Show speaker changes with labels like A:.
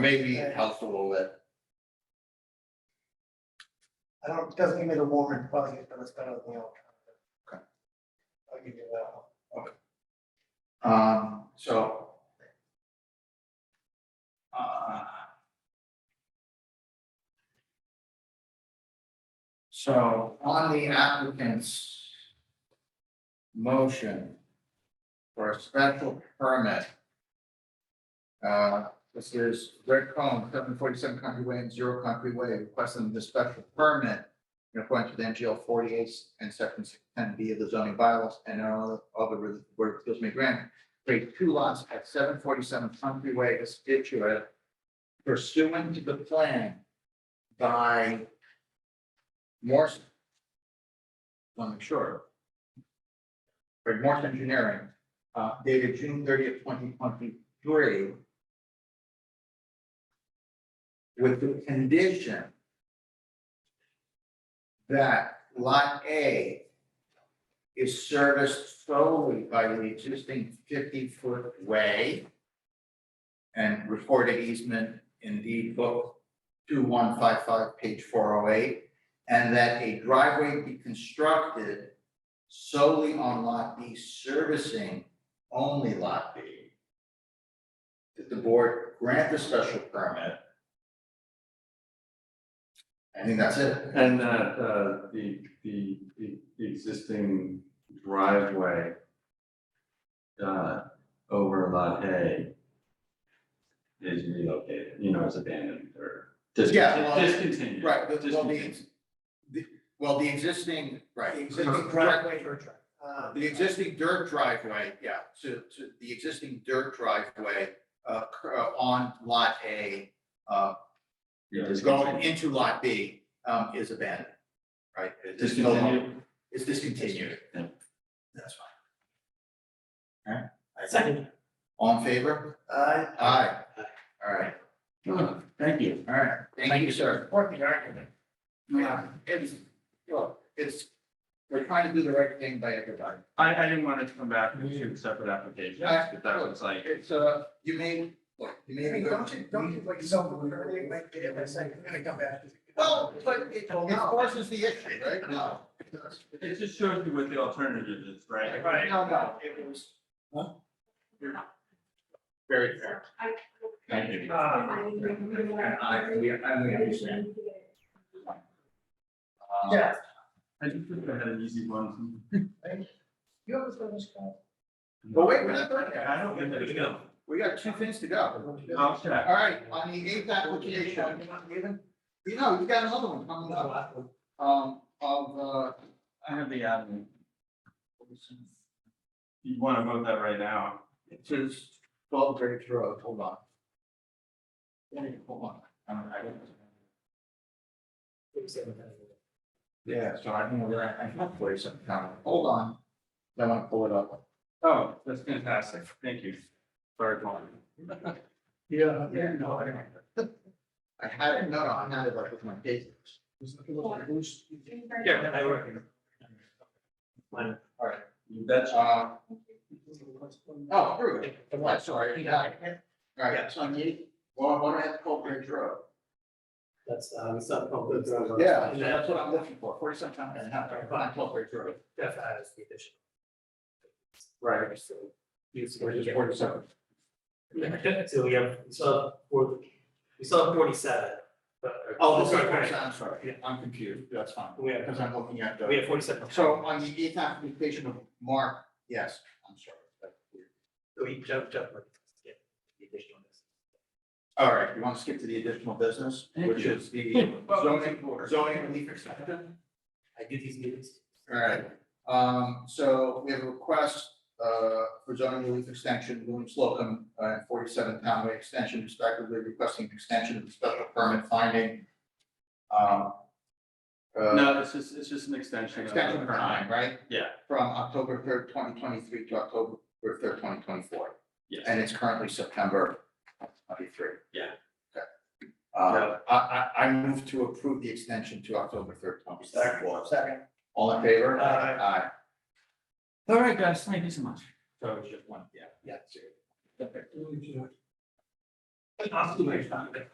A: maybe it helps a little bit.
B: I don't, it doesn't give me the warm and fuzzy, but it's better than the old. Okay. I'll give you that one.
A: Um, so. uh, So on the applicant's motion for a special permit. Uh, this is Rick Cohen, seven forty-seven Country Way and Zero Country Way, requesting the special permit in accordance with NGL forty-eight and section ten B of the zoning bylaws and all other where appeals may grant. Create two lots at seven forty-seven Country Way, Situate pursuant to the plan by Morse. Want to make sure. Or Morse Engineering, uh, dated June thirtieth, twenty twenty-three. With the condition that lot A is serviced solely by the existing fifty-foot way and recorded easement in deed book two one five five, page four oh eight, and that a driveway be constructed solely on lot B servicing only lot B. That the board grant the special permit. I think that's it.
C: And that, uh, the, the, the the existing driveway uh, over lot A is relocated, you know, is abandoned or
A: Yeah,
C: discontinued.
A: well,
C: Discontinued.
A: Right, but well, the,
C: Discontinued.
A: ex- the, well, the existing, right.
B: The Existing driveway or truck. uh,
A: The existing dirt driveway, yeah, to, to the existing dirt driveway, uh, cur- uh, on lot A, uh,
C: Yeah,
A: is going into lot B, um, is abandoned. Right? It is no longer-
C: Discontinued.
A: It's discontinued.
C: Yeah.
A: That's fine. Okay. Second. All in favor?
B: I,
A: Aye. All right,
C: Oh, Thank you.
A: all right. Thank you, sir.
B: support the argument.
A: Yeah, it's, look, it's, we're trying to do the right thing by everybody.
C: I, I didn't want it to come back with two separate applications,
A: Yeah.
C: but that was like,
A: It's, uh, you may, look, you may be.
B: Don't you, don't you like so, early, like, if I say, I'm gonna come back.
A: Well, but it, it
B: Well, no.
A: forces the issue, right? No.
C: it just shows you what the alternative is, right?
A: No, no, it was. Huh? Very fair.
C: Thank you.
A: And I, and we, and we understand. Uh,
B: Yeah,
C: I just think I had an easy one.
B: you have a service call.
A: But wait, we're not done yet.
C: I don't get that, no.
A: We got two things to go.
C: I'll check.
A: All right, on the eighth Uh, application, you know, you got another one coming up, um, of, uh,
C: I have the admin. You wanna vote that right now?
A: It says twelve Graves Road, hold on. Wait, Hold on. Um, I don't- Yeah, so I don't know where I, I have place at the time. hold on. I wanna pull it up.
C: Oh, that's fantastic, thank you. Third one.
B: Yeah.
A: Yeah, no, I don't. I had it, no, no, I had it like with my business.
C: Yeah, I work.
A: All right,
C: You betcha.
A: uh, oh, here we go. I'm sorry, yeah. All
D: Yeah.
A: right, so I need, well, I wanna have twelve Graves Road.
D: That's, um, some public.
A: Yeah, so that's what I'm looking for, forty seven times and a half, but twelve Graves Road.
D: Def has the addition.
A: Right.
D: So
A: Which is forty seven.
D: So we have, we still have four, we still have forty-seven, but.
A: Oh,
D: sorry,
A: sorry,
D: forty-
A: I'm sorry, I'm confused, that's fine,
D: We have,
A: because I'm looking at
D: we
A: the,
D: have forty-seven.
A: so on the eighth application of Mark, yes, I'm sorry. that's weird.
D: So we jump, jump. like, yeah, the addition on this.
A: All right, you want to skip to the additional business,
C: Thank
A: which
C: you.
A: is the zoning, zoning relief exception?
D: I do these meetings.
A: All right, um, so we have a request, uh, for zoning relief extension, William Slocum, uh, forty-seven Townway Extension respectively requesting an extension of the special permit finding. Um. uh,
C: No, it's just, it's just an extension. of the
A: Extension of
C: current.
A: time, right?
C: Yeah.
A: From October third, twenty twenty-three to October third, twenty twenty-four,
C: Yes,
A: and it's currently September twenty-three.
C: Yeah.
A: Okay. Uh, I, I, I move to approve the extension to October third, twenty-four.
B: Second.
A: All in favor?
B: Aye.
A: Aye.
C: all right, guys, thank you so much.
A: So it's just one, yeah, yeah, sure.
D: An observation.